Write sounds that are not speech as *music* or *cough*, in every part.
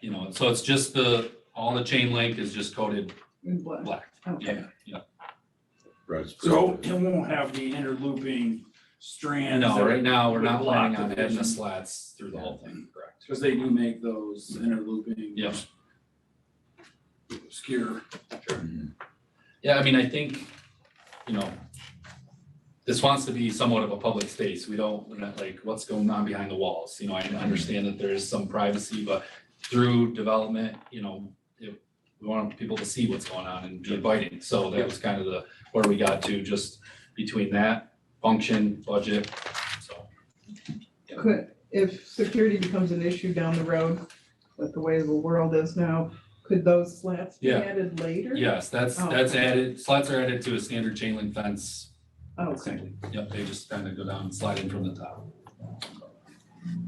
you know, so it's just the, all the chain link is just coated in black. black. Okay. Yeah, yeah. Right. So it won't have the interlooping strands. No, uh, right now, we're With not block planning on adding the division. slats through the whole thing, correct? Because they do make those interlooping. Yeah. Obscure. Yeah, I mean, I think, you know, this wants to be somewhat of a public space. We don't, we're not like, what's going on behind the walls? You know, I understand that there is some privacy, but through development, you know, it- we want people to see what's going on and be inviting. So that was kind of the, where we got to, just between that function, budget, so. Could, if security becomes an issue down the road, with the way the world is now, could those slats be Yeah. added later? Yes, that's, Oh. that's added, slats are added to a standard chain link fence Oh, Okay. simply. Yep, they just kind of go down, and slide in from the top.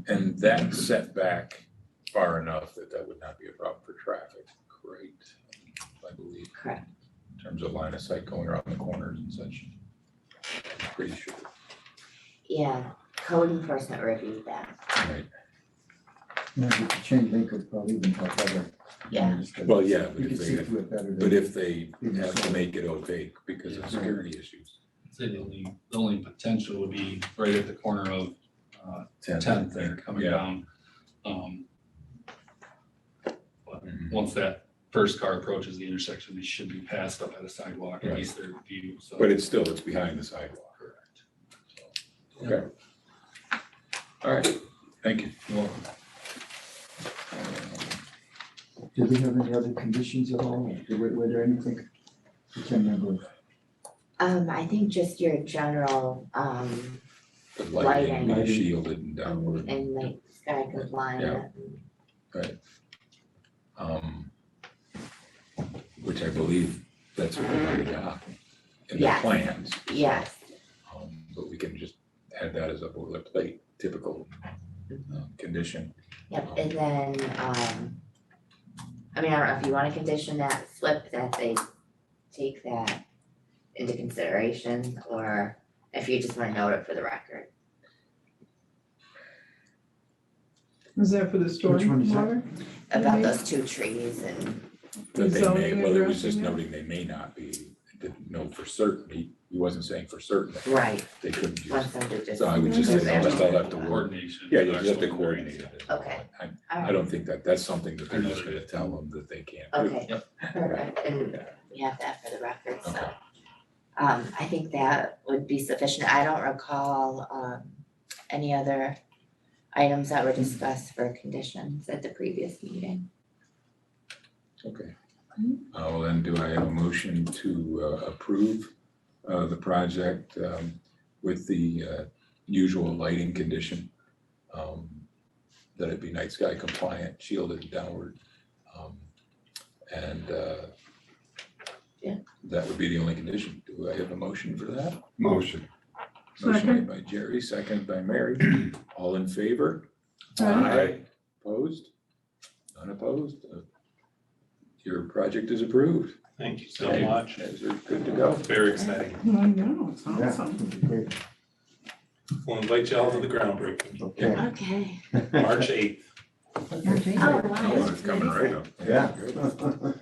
And that set back far enough that that would not be a problem for traffic. Great, I believe. Correct. In terms of line of sight going around the corners and such. Pretty sure. Yeah, code enforcement reviewed that. Right. No, the chain link would probably even uh, help better. Yeah. Well, yeah, but You if can see they, through it better. than- but if they have to make it opaque because of security issues. Say the only, the only potential would be right at the corner of uh, Tenth there coming Yeah. down. Um, Mm-hmm. Once that first car approaches the intersection, they should be passed up by the sidewalk, at Right. least their view, so. But it's still, it's behind the sidewalk. Correct. Okay. All right, thank you. You're welcome. Do we have any other conditions at all? Or Were, were there anything? I can't remember. Um, I think just your general, um, The lighting, Lighting. be shielded and downward. and like sky compliant. um, Which I believe that's what we're going to in the Yes. plans. Yes, Um, But we can just add that as a boilerplate, typical um, condition. yep, and then, um, I mean, I don't know if you wanna condition that slip that they take that into consideration, or if you just wanna note it for the record. Is that for the Which one storing is that? water? About Mhm. those two trees and, That they may, Zoning well, it was just addressing it? noting they may not be, didn't know for certain. He he wasn't saying for certain that right, they couldn't do wants it. them to just. So I would just say, no, that's all I have to work. Coordination. Yeah, you just have to coordinate it. Okay. I- all I right, don't think that that's something that they're just going to tell them that they can't do. Okay. Yep. Perfect, and we have that for the record, so. Um, I think that would be sufficient. I don't recall, um, any other items that were discussed for conditions at the previous meeting. Okay. Mhm. Uh, well, then do I have a motion to uh, approve, uh, the project, um, with the, uh, usual lighting condition? um, That it be night sky compliant, shielded and downward. um, And, uh, Yeah. that would be the only condition. Do I have a motion for that? Motion. Motion Second. made by Jerry, second by Mary. *clears throat* All in favor? Uh, Aye. Opposed? None opposed? Uh, Your project is approved. Thank you Thank so you. much. Guys are good to go. Very exciting. I know, it's Yeah, awesome. would be great. We'll invite y'all to the groundbreaking, Okay. Okay. March eighth. Oh, wow. Oh, it's coming right up. *laughs* Yeah. Good.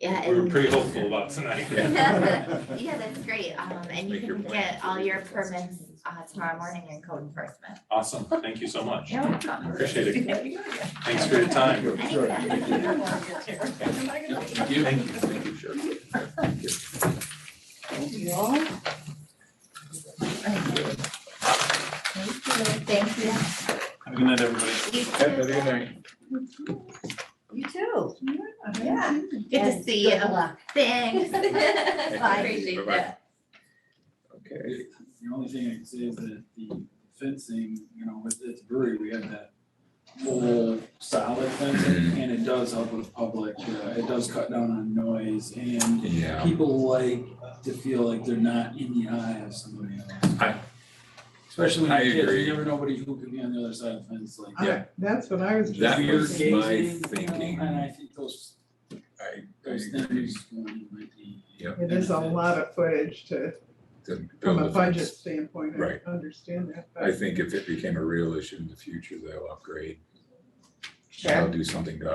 Yeah, We were and, pretty hopeful about tonight. *laughs* yeah, that's great. Um, and you Make your can plan. get all your permits, uh, tomorrow morning in code enforcement. Awesome. Thank you so much. You're welcome. Appreciate it. Thanks for your time. *laughs* *laughs* Sure. Yep, Thank you. Thank you, Sheriff. Thank you all. Thank you, thank Have a good night, you. everybody. You Have a too. good night. You too. Yeah. Good to see you. Thanks. *laughs* Bye. Appreciate that. Okay, The only thing I can say is that the fencing, you know, with its brewery, we had that whole solid fencing and it does help with public, uh, it does cut down on noise and yeah. people like to feel like they're not in the eye of somebody else. I- Especially when I you're kids, agree. you never know nobody who could be on the other side of the fence like. Yeah. That's what I was just. That weird was my gazing, you know, thinking. And I think those, I- I those agree. things um, might be. Yep. It is a lot of footage to, To from build a a budget fence. standpoint, I Right. understand that, but. I think if it became a real issue in the future, they'll upgrade. Sure. They'll do something to